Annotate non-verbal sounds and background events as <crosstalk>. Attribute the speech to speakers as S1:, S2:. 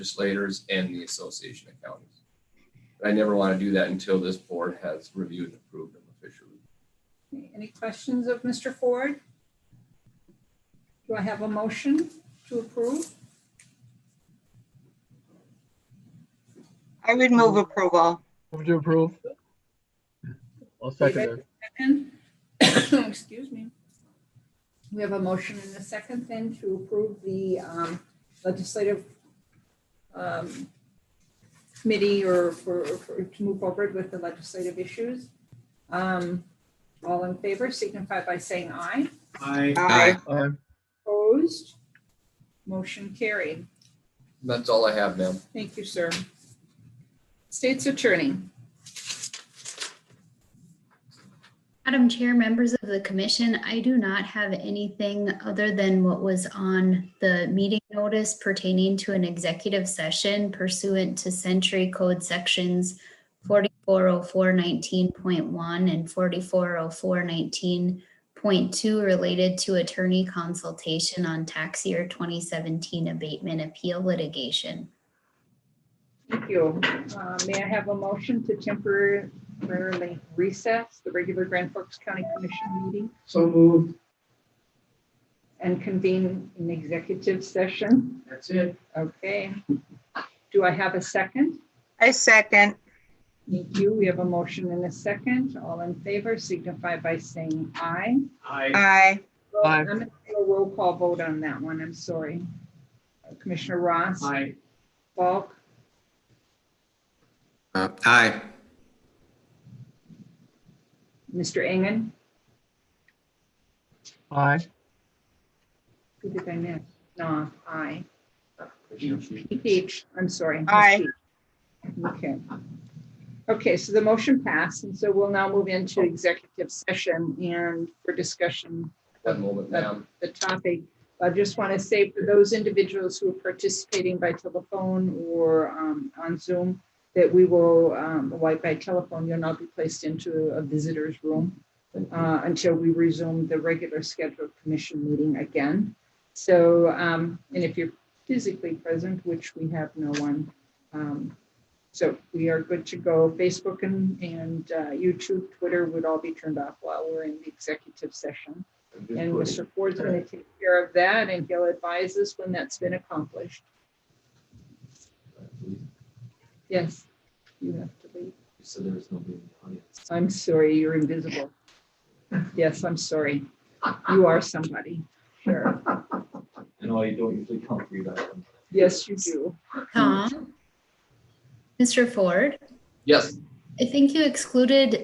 S1: legislators and the Association of Counties. But I never want to do that until this board has reviewed and approved them officially.
S2: Okay, Any questions of Mr. Ford? Do I have a motion to approve?
S3: I would move approval.
S4: Move to approve. I'll second
S2: David?
S4: it.
S2: Second. <coughs> Excuse me. We have a motion and a second then to approve the um, legislative um, committee or for, for- to move forward with the legislative issues. Um, All in favor signify by saying aye.
S5: Aye.
S3: Aye.
S4: Aye.
S2: Opposed? Motion carried.
S1: That's all I have, ma'am.
S2: Thank you, sir. State's attorney.
S6: Madam Chair, members of the commission, I do not have anything other than what was on the meeting notice pertaining to an executive session pursuant to Century Code Sections 440419.1 and 440419.2 related to attorney consultation on tax year 2017 abatement appeal litigation.
S2: Thank you. Uh, May I have a motion to temporarily recess the regular Grand Forks County Commission meeting
S5: So moved.
S2: and convene an executive session?
S5: That's it.
S2: Okay. Do I have a second?
S3: I second.
S2: Thank you. We have a motion and a second. All in favor signify by saying aye.
S5: Aye.
S3: Aye.
S4: Aye.
S2: I'm going to do a roll call vote on that one. I'm sorry. Uh, Commissioner Ross,
S5: Aye.
S2: Falk,
S7: Uh, Aye.
S2: Mr. Engen,
S4: Aye.
S2: who did I miss? No, aye.
S1: Commissioner.
S2: Peach, I'm sorry.
S3: Aye.
S2: Okay. Okay, so the motion passed, and so we'll now move into executive session and for discussion,
S1: One moment, ma'am.
S2: the topic. I just want to say for those individuals who are participating by telephone or um, on Zoom, that we will, um, like by telephone, you'll not be placed into a visitor's room uh, until we resume the regular scheduled commission meeting again. So, um, and if you're physically present, which we have no one. um, So we are good to go. Facebook and, and uh, YouTube, Twitter would all be turned off while we're in the executive session. And Mr. Ford's going to take care of that and he'll advise us when that's been accomplished. Yes, you have to leave.
S8: So there is nobody in the audience.
S2: I'm sorry, you're invisible. Yes, I'm sorry. You are somebody. Sure.
S8: I know I don't usually come for you guys.
S2: Yes, you do.
S6: Tom? Mr. Ford,
S1: Yes.
S6: I think you excluded